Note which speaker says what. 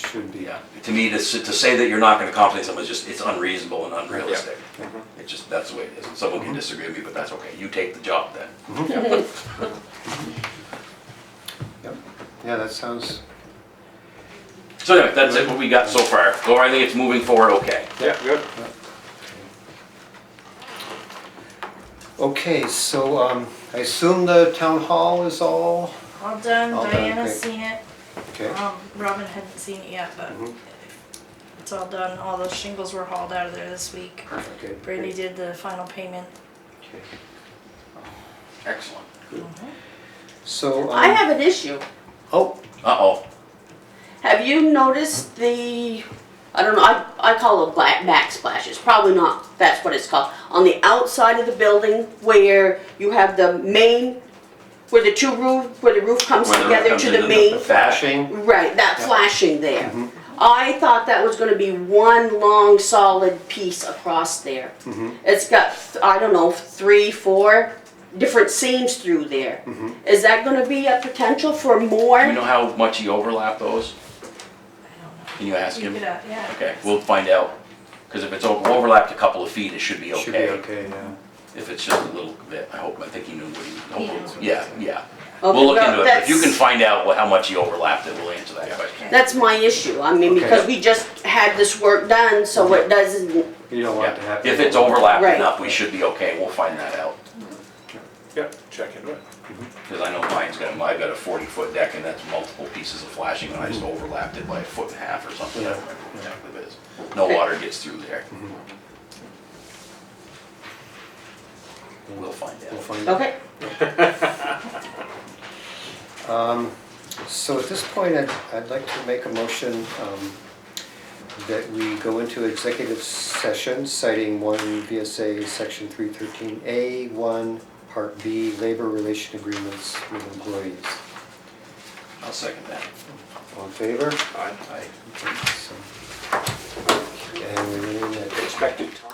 Speaker 1: should be.
Speaker 2: Yeah, to me, to, s- to say that you're not gonna compensate someone is just, it's unreasonable and unrealistic. It's just, that's the way it is, and someone can disagree with me, but that's okay, you take the job then.
Speaker 1: Yep. Yeah, that sounds,
Speaker 2: So anyway, that's it, what we got so far, Laura, I think it's moving forward okay.
Speaker 3: Yeah, good.
Speaker 1: okay, so um, I assume the town hall is all,
Speaker 4: All done,
Speaker 1: All done,
Speaker 4: Diana's
Speaker 1: okay.
Speaker 4: seen it,
Speaker 1: okay?
Speaker 4: um, Robin hadn't seen it yet, but
Speaker 1: Mhm.
Speaker 4: it's all done, all the shingles were hauled out of there this week.
Speaker 1: Okay.
Speaker 4: Brandy did the final payment.
Speaker 1: Okay.
Speaker 2: Excellent.
Speaker 1: So,
Speaker 5: I
Speaker 1: um,
Speaker 5: have an issue.
Speaker 1: oh,
Speaker 2: Uh-oh,
Speaker 5: Have you noticed the, I don't know, I, I call it black back splash, it's probably not, that's what it's called. On the outside of the building where you have the main, where the two roof, where the roof comes
Speaker 2: Where the roof
Speaker 5: together
Speaker 2: comes
Speaker 5: to
Speaker 2: into
Speaker 5: the
Speaker 2: the-
Speaker 5: main.
Speaker 1: flashing,
Speaker 5: Right, that flashing there.
Speaker 2: Mm-hmm.
Speaker 5: I thought that was gonna be one long solid piece across there.
Speaker 1: Mm-hmm,
Speaker 5: It's got, th- I don't know, three, four different seams through there.
Speaker 1: mm-hmm.
Speaker 5: Is that gonna be a potential for more?
Speaker 2: you know how much he overlapped those?
Speaker 4: I don't
Speaker 2: Can you ask
Speaker 4: know. You
Speaker 2: him?
Speaker 4: could, uh, yeah.
Speaker 2: Okay, we'll find out, because if it's over- overlapped a couple of feet, it should be
Speaker 1: should be
Speaker 2: okay.
Speaker 1: okay, yeah.
Speaker 2: If it's just a little bit, I hope, I think he knew what he,
Speaker 4: knows
Speaker 2: hopefully,
Speaker 4: what
Speaker 2: yeah, yeah.
Speaker 5: Okay,
Speaker 2: We'll look
Speaker 5: well,
Speaker 2: into it, but if you can
Speaker 5: that's-
Speaker 2: find out what- how much he overlapped, it will answer that question.
Speaker 5: That's my issue, I mean,
Speaker 1: Okay.
Speaker 5: because we just had this work done, so it doesn't,
Speaker 1: You don't want it to
Speaker 2: Yeah,
Speaker 1: happen.
Speaker 2: if it's overlapped
Speaker 5: Right.
Speaker 2: enough, we should be okay, we'll find that out.
Speaker 3: Yeah, check into it.
Speaker 2: Cause I know mine's got, I've got a forty foot deck and that's multiple pieces of flashing and I just overlapped it by a foot and a half or something, I don't remember what exactly it is. No water gets through there.
Speaker 1: Mm-hmm,
Speaker 2: We'll find
Speaker 1: Mm-hmm. We'll
Speaker 2: out.
Speaker 1: find out.
Speaker 5: okay?
Speaker 1: Um, So at this point, I'd, I'd like to make a motion um, that we go into executive session citing one VSA section three thirteen A, one, part B, labor relation agreements with employees.
Speaker 2: I'll second that.
Speaker 1: All in favor?
Speaker 3: I
Speaker 2: Aye.
Speaker 1: Okay, so- And we're in that.
Speaker 3: expected time.